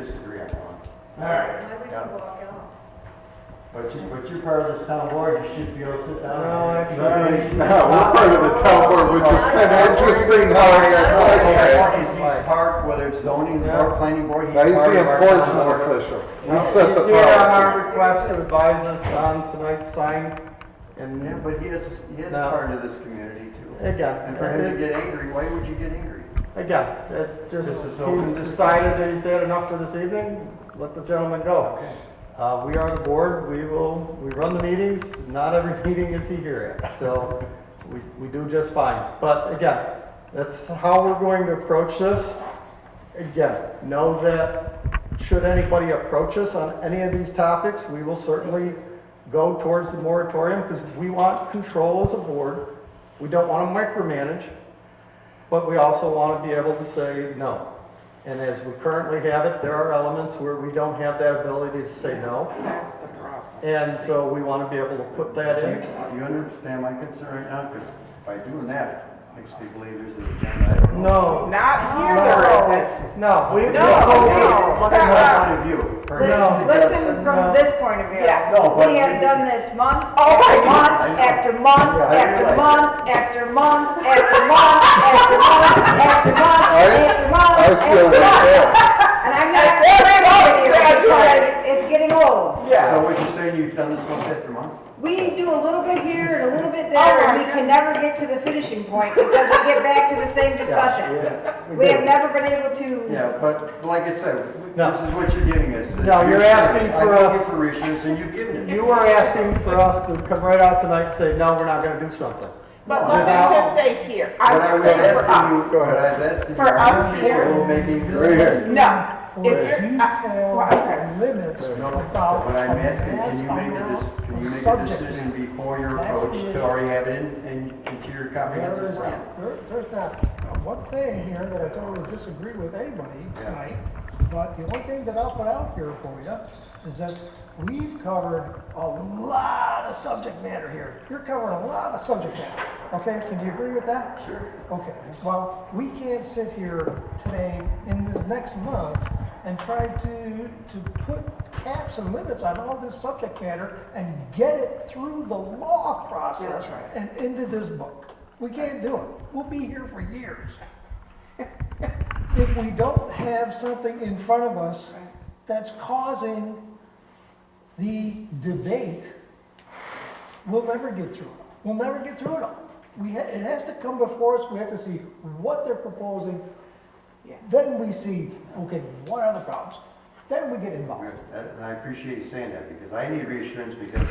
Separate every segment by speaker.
Speaker 1: disagree upon.
Speaker 2: All right.
Speaker 3: Why would you
Speaker 1: Yeah.
Speaker 3: walk out?
Speaker 1: But you, but you're part of this town board, you should be able to sit down.
Speaker 2: No,
Speaker 1: and-
Speaker 2: actually-
Speaker 4: Yeah, we're part of the town board, which is kind of interesting how it
Speaker 1: Well,
Speaker 4: gets
Speaker 1: He's, he's part, whether it's zoning
Speaker 2: Yeah.
Speaker 1: or planning board, he's
Speaker 4: Now,
Speaker 1: part
Speaker 4: he's the
Speaker 1: of our town
Speaker 4: enforcement
Speaker 1: board.
Speaker 4: official. We
Speaker 2: He's
Speaker 4: set the
Speaker 2: here on our
Speaker 4: policy.
Speaker 2: request to advise us on tonight's sign,
Speaker 1: Yeah,
Speaker 2: and
Speaker 1: but he is, he is
Speaker 2: No.
Speaker 1: part of this community too. And for him to
Speaker 2: again,
Speaker 1: get angry, why would you get angry?
Speaker 2: again, it Uh, just,
Speaker 1: This is open
Speaker 2: he's
Speaker 1: discussion.
Speaker 2: decided that he's had enough for this evening, let the gentleman go. Uh, we are the board, we will, we run the meetings, not every meeting is he here at, so we, we do just fine. But again, that's how we're going to approach this. Again, know that should anybody approach us on any of these topics, we will certainly go towards the moratorium because we want control as a board. We don't want to micromanage, but we also want to be able to say no. And as we currently have it, there are elements where we don't have that ability to say no.
Speaker 3: That's the problem.
Speaker 2: And so we want to be able to put that
Speaker 1: Do
Speaker 2: in.
Speaker 1: you- do you understand my concern right now? Because by doing that, it makes me believe there's an agenda. item.
Speaker 2: No.
Speaker 3: Not
Speaker 2: no,
Speaker 3: here there isn't.
Speaker 2: No. we-
Speaker 3: No,
Speaker 1: From
Speaker 3: no.
Speaker 1: my point of view. for him
Speaker 2: No.
Speaker 1: to
Speaker 5: Listen,
Speaker 1: get-
Speaker 5: listen
Speaker 2: No.
Speaker 5: from this point of view.
Speaker 3: Yeah.
Speaker 1: No, but
Speaker 5: We
Speaker 1: we-
Speaker 5: have done this month, after month, after month,
Speaker 1: Yeah, I realize
Speaker 5: after month, after month, after month, after month, after month, after month,
Speaker 4: I feel
Speaker 5: after
Speaker 4: like
Speaker 5: month.
Speaker 4: that.
Speaker 5: And I'm not saying it's because it's getting old.
Speaker 1: So what you're saying, you've done this one day for months?
Speaker 5: We do a little bit here and a little bit
Speaker 3: Oh,
Speaker 5: there, and we
Speaker 3: yeah.
Speaker 5: can never get to the finishing point because we get back to the same discussion.
Speaker 2: Yeah,
Speaker 5: We have
Speaker 2: do.
Speaker 5: never been able to.
Speaker 1: Yeah, but like I said,
Speaker 2: No.
Speaker 1: this is what you're giving us.
Speaker 2: No, you're asking for
Speaker 1: I give
Speaker 2: us-
Speaker 1: you for issues and you've given it.
Speaker 2: You are asking for us to come right out tonight and say, no, we're not gonna do something.
Speaker 3: But let me just say here, I
Speaker 1: But I
Speaker 3: would
Speaker 1: was
Speaker 3: say for
Speaker 1: asking
Speaker 3: us,
Speaker 1: you, but I was asking you,
Speaker 3: For
Speaker 1: are
Speaker 3: us
Speaker 1: you
Speaker 3: here.
Speaker 1: capable of making
Speaker 4: Right here.
Speaker 1: this?
Speaker 3: no. If
Speaker 6: Or
Speaker 3: you're, I- well, I'm sorry.
Speaker 6: detailed limits
Speaker 1: No,
Speaker 6: about.
Speaker 1: but what I'm asking, can you make a,
Speaker 6: amount
Speaker 1: dis- can you
Speaker 6: of
Speaker 1: make a
Speaker 6: subject.
Speaker 1: decision before your
Speaker 6: That's
Speaker 1: approach
Speaker 6: the-
Speaker 1: to already have it in, and into your
Speaker 6: There
Speaker 1: comprehensive
Speaker 6: is,
Speaker 1: plan?
Speaker 6: there- there's not one thing here that I totally disagree with anybody
Speaker 1: Yeah.
Speaker 6: tonight, but the only thing that I'll put out here for you is that we've covered a lot of subject matter here. You're covering a lot of subject matter, okay? Can you agree with that?
Speaker 1: Sure.
Speaker 6: Okay, well, we can't sit here today in this next month and try to, to put caps and limits on all this subject matter and get it through the law process
Speaker 5: That's right.
Speaker 6: and into this book. We can't do it. We'll be here for years. If we don't have something in front of us that's causing the debate, we'll never get through it. We'll never get through it all. We ha, it has to come before us, we have to see what they're proposing.
Speaker 3: Yeah.
Speaker 6: Then we see, okay, what are the problems? Then we get involved.
Speaker 1: That- And I appreciate you saying that, because I need reassurance, because,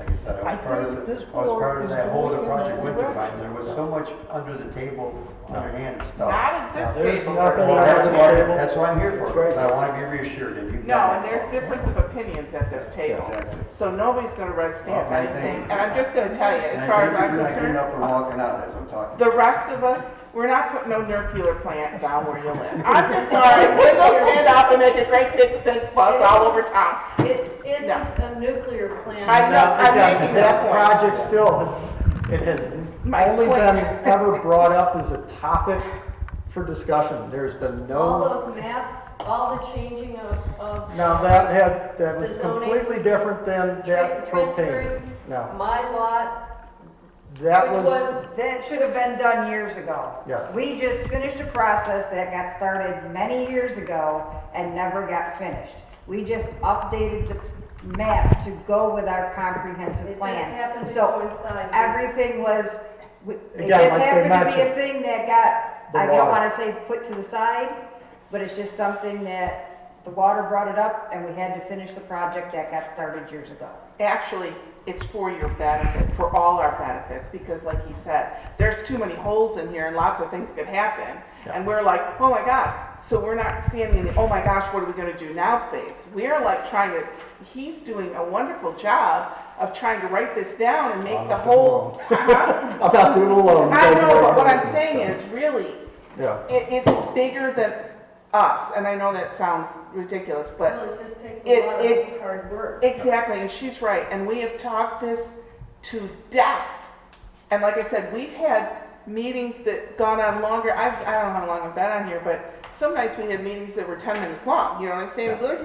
Speaker 1: like I said, I
Speaker 6: I
Speaker 1: was part of,
Speaker 6: think
Speaker 1: the-
Speaker 6: this
Speaker 1: I was
Speaker 6: board
Speaker 1: part of
Speaker 6: is
Speaker 1: that whole other
Speaker 6: going in
Speaker 1: project
Speaker 6: that
Speaker 1: Wintertime, there was so much under the table, underhand stuff.
Speaker 3: Not at this
Speaker 2: There's
Speaker 3: table.
Speaker 2: nothing
Speaker 1: Well,
Speaker 2: under
Speaker 1: that's
Speaker 2: the
Speaker 1: why,
Speaker 2: table.
Speaker 1: that's why I'm here for,
Speaker 2: That's
Speaker 1: because
Speaker 2: right.
Speaker 1: I want to be reassured, and you've
Speaker 3: No,
Speaker 1: done
Speaker 3: and
Speaker 1: that.
Speaker 3: there's difference of opinions at this table.
Speaker 1: Exactly.
Speaker 3: So nobody's gonna write stamp
Speaker 1: Okay, thank
Speaker 3: anything.
Speaker 1: you.
Speaker 3: And I'm just gonna tell you, as
Speaker 1: And
Speaker 3: far
Speaker 1: I
Speaker 3: as
Speaker 1: think
Speaker 3: I'm
Speaker 1: you're not getting up and
Speaker 3: concerned,
Speaker 1: walking out as I'm talking.
Speaker 3: the rest of us, we're not putting no nuclear plant down where you live. I'm just sorry, we're gonna stand up and make a great big stink fuss all over town.
Speaker 7: It isn't
Speaker 3: No.
Speaker 7: a nuclear plant.
Speaker 3: I know,
Speaker 2: Now,
Speaker 3: I'm
Speaker 2: again,
Speaker 3: making that point.
Speaker 2: project still, has- it has
Speaker 3: My
Speaker 2: only
Speaker 3: point.
Speaker 2: been ever brought up as a topic for discussion. There's been
Speaker 7: All
Speaker 2: no,
Speaker 7: those maps, all the changing of, of.
Speaker 2: now that had, that was
Speaker 7: The zoning.
Speaker 2: completely different than
Speaker 7: tra-
Speaker 2: that propane.
Speaker 7: Transferring
Speaker 2: No,
Speaker 7: my lot,
Speaker 2: that
Speaker 7: which
Speaker 2: was,
Speaker 7: was,
Speaker 5: That should have been done years ago.
Speaker 2: Yes.
Speaker 5: We just finished a process that got started many years ago and never got finished. We just updated the map to go with our comprehensive
Speaker 7: It
Speaker 5: plan.
Speaker 7: just happened to
Speaker 5: So
Speaker 7: coincide with-
Speaker 5: Everything was, we- it
Speaker 2: Again,
Speaker 5: just
Speaker 2: like they
Speaker 5: happened to be
Speaker 2: mentioned,
Speaker 5: a thing that
Speaker 2: the
Speaker 5: got, I don't
Speaker 2: water.
Speaker 5: wanna say put to the side, but it's just something that the water brought it up and we had to finish the project that got started years ago.
Speaker 3: Actually, it's for your benefit, for all our benefits, because like he said, there's too many holes in here and lots of things could happen. And we're like, oh my gosh, so we're not standing in the, oh my gosh, what are we gonna do now phase? We're like trying to, he's doing a wonderful job of trying to write this down and make the holes. I
Speaker 2: I'm not doing it alone.
Speaker 3: know, but what I'm saying is really,
Speaker 2: Yeah,
Speaker 3: it, it's bigger than us, and I know that sounds ridiculous, but
Speaker 7: well, it just takes
Speaker 3: It-
Speaker 7: a lot
Speaker 3: it-
Speaker 7: of hard work.
Speaker 3: Exactly, and she's right, and we have talked this to death. And like I said, we've had meetings that gone on longer, I've, I don't know how long I've been on here, but some nights we had meetings that were ten minutes long, you know what I'm saying? We're